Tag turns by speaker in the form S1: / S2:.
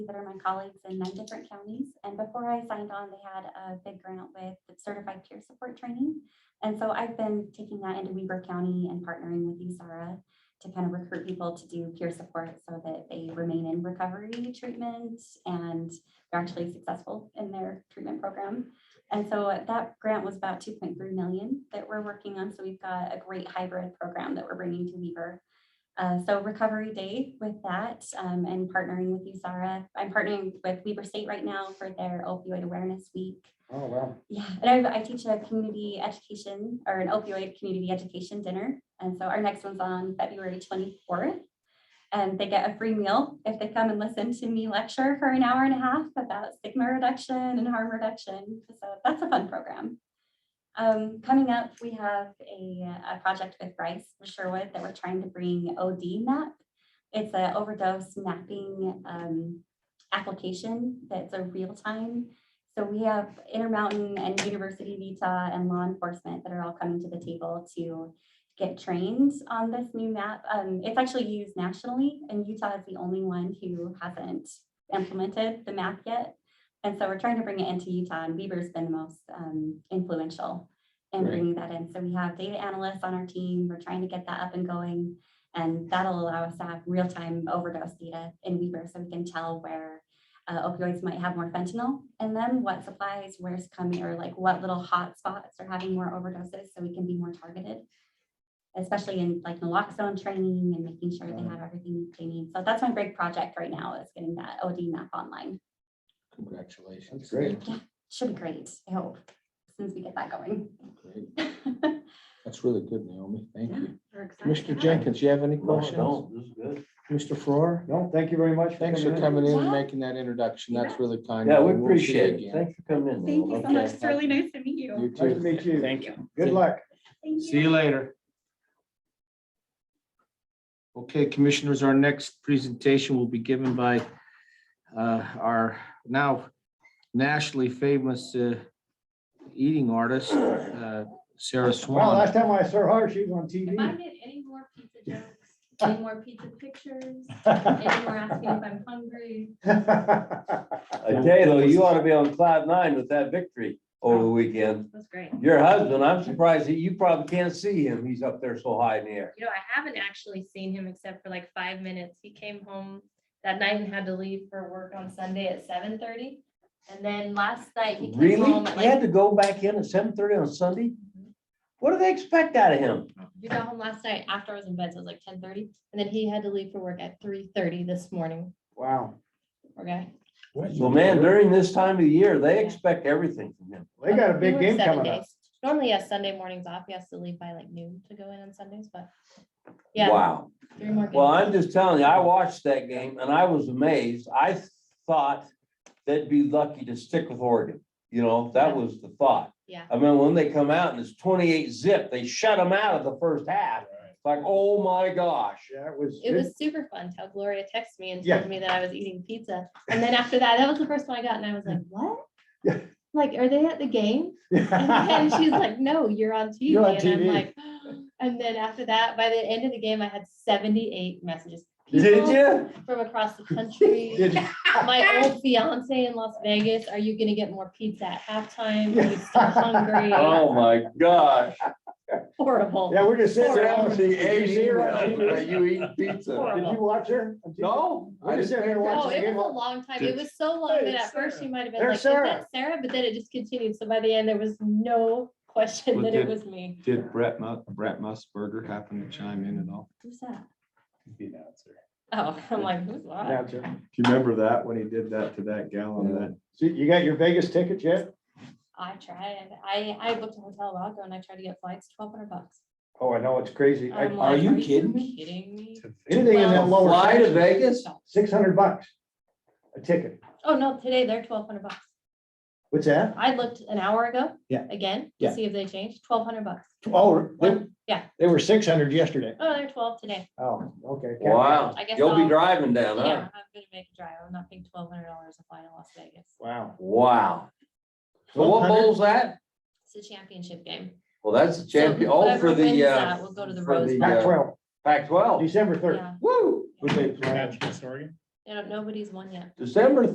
S1: that are my colleagues in nine different counties. And before I signed on, they had a big grant with certified peer support training. And so I've been taking that into Weaver County and partnering with USARA to kind of recruit people to do peer support so that they remain in recovery treatment and they're actually successful in their treatment program. And so that grant was about two point three million that we're working on. So we've got a great hybrid program that we're bringing to Weaver. Uh, so Recovery Day with that um, and partnering with USARA. I'm partnering with Weaver State right now for their opioid awareness week.
S2: Oh, wow.
S1: Yeah, and I, I teach a community education or an opioid community education dinner. And so our next one's on February twenty-fourth. And they get a free meal if they come and listen to me lecture for an hour and a half about stigma reduction and harm reduction. So that's a fun program. Um, coming up, we have a, a project with Bryce Sherwood that we're trying to bring OD map. It's an overdose mapping, um, application that's a real-time so we have Intermountain and University of Utah and law enforcement that are all coming to the table to get trained on this new map. Um, it's actually used nationally and Utah is the only one who hasn't implemented the map yet. And so we're trying to bring it into Utah and Weaver's been the most um, influential in
S2: Great.
S1: bringing that in. So we have data analysts on our team. We're trying to get that up and going. And that'll allow us to have real-time overdose data in Weaver so we can tell where uh, opioids might have more fentanyl in them, what supplies, where's coming, or like what little hot spots are having more overdoses, so we can be more targeted. Especially in like naloxone training and making sure they
S2: Right.
S1: have everything they need. So that's my big project right now is getting that OD map online.
S2: That's
S3: Congratulations.
S2: great.
S1: Should be great, I hope, since we get that going.
S3: Great. That's really good, Naomi. Thank you.
S4: We're excited
S3: Mr.
S4: about it.
S3: Jenkins, you have any
S5: Oh, No, I
S3: questions?
S5: don't. This is good.
S3: Mr. Farrar?
S2: No, thank you very much.
S3: Thanks for coming in and
S1: Yeah.
S3: making that introduction. That's really kind.
S5: Yeah,
S3: of
S5: we
S3: you. We'll see you
S5: appreciate it.
S3: again.
S5: Thanks for coming in.
S1: Thank
S5: Noel.
S1: you so
S3: Okay.
S1: much, it's really nice to meet
S3: You
S1: you.
S2: Nice to
S3: too.
S2: meet you. Thank
S3: you.
S2: Good luck.
S1: Thank
S3: See you later. Okay, commissioners, our next presentation will be given by uh, our now nationally famous uh, eating artist, uh, Sarah
S2: Well, last
S3: Swan.
S2: time I saw her, she was on
S4: If I
S2: TV.
S4: get any more pizza jokes, any more pizza pictures, any more asking if I'm hungry,
S5: I tell you, though, Uh, you ought to be on cloud nine with that victory over the weekend.
S4: that's great.
S5: Your husband, I'm surprised that you probably can't see him. He's up there so high in the air.
S4: You know, I haven't actually seen him except for like five minutes. He came home that night and had to leave for work on Sunday at seven thirty. And then last night he came
S5: Really?
S4: home at
S5: He had
S4: like, Mm-hmm.
S5: to go back in at seven thirty on Sunday? What do they expect out of him?
S4: you got home last night after I was in bed, so it was like ten thirty. And then he had to leave for work at three thirty this morning.
S2: Wow,
S4: Okay.
S5: So man, during this time of the year, they expect everything from him.
S2: they got a big game coming up.
S4: Normally he has Sunday mornings off. He has to leave by like noon to go in on Sundays, but yeah,
S5: Wow.
S4: three more
S5: Well,
S4: games.
S5: I'm just telling you, I watched that game and I was amazed. I thought they'd be lucky to stick with Oregon. You know, that was the thought.
S4: Yeah.
S5: I mean, when they come out and it's twenty-eight zip, they shut them out of the first half. It's Like, oh my gosh.
S2: Yeah, it was.
S4: It was super fun till Gloria texted me and
S2: Yeah.
S4: told me that I was eating pizza. And then after that, that was the first one I got and I was like, what?
S2: Yeah.
S4: Like, are they at the game? And she's like, no, you're on TV.
S2: You're on
S4: And I'm
S2: TV.
S4: like, and then after that, by the end of the game, I had seventy-eight messages.
S5: Did
S4: People
S5: you?
S4: From across the country.
S2: Did-
S4: my old fiance in Las Vegas, are you gonna get more pizza at halftime? Are you still hungry?
S5: Oh my gosh.
S4: Horrible.
S2: Yeah, we're just sitting there. Did you
S5: Seventy-eight
S2: see her on
S5: emails. Are
S2: TV?
S5: you eating pizza?
S2: Did you watch her? on TV?
S5: No. I
S2: We're just sitting here
S5: didn't-
S4: Oh,
S2: watching. the
S4: it
S2: game.
S4: was a long time. It was so long that at first she might have been like,
S2: There's
S4: is that Sarah? But then it just continued. So by the end, there was no question
S6: Well,
S4: that it
S6: did-
S4: was me.
S6: Did Brett Mu- Brett Musburger happen to chime in at all?
S1: Who's that?
S4: Oh, I'm like, who's
S2: Yeah,
S4: that?
S2: sure.
S6: Do you remember that when he did that to that gal on that?
S2: So you got your Vegas tickets yet?
S4: I tried. I, I booked a hotel a while ago and I tried to get flights, twelve hundred bucks.
S2: Oh, I know, it's crazy. I-
S4: I'm
S5: are
S4: like,
S5: you kidding me?
S4: Kidding me?
S2: Anything in that
S4: Well-
S2: lower.
S5: Fly to
S2: section,
S5: Vegas?
S2: Six hundred bucks. A ticket.
S4: Oh, no, today they're twelve hundred bucks.
S2: What's that?
S4: I looked an hour ago.
S2: Yeah.
S4: Again,
S2: Yeah.
S4: to see if they changed, twelve hundred bucks.
S2: Oh, they-
S4: One- Yeah,
S2: they were six hundred yesterday.
S4: oh, they're twelve today.
S2: Oh, okay.
S5: Wow.
S4: I guess
S5: You'll be
S4: I'll-
S5: driving down,
S4: Yeah, I'm
S5: huh?
S4: gonna make a drive. I'm not paying twelve hundred dollars to fly to Las Vegas.
S2: Wow.
S5: Wow. So what
S2: 100?
S5: bowl's that?
S4: It's a championship game.
S5: Well, that's the
S4: So
S5: champion, all
S4: whoever
S5: for
S4: wins
S5: the, uh,
S4: that will go to the
S5: for
S4: Rose
S5: the,
S4: Bowl.
S2: Pac
S5: uh,
S2: twelve,
S5: Pac twelve.
S2: December third.
S4: Yeah.
S5: Woo!
S2: Who they play?
S7: I don't, nobody's won yet.
S4: December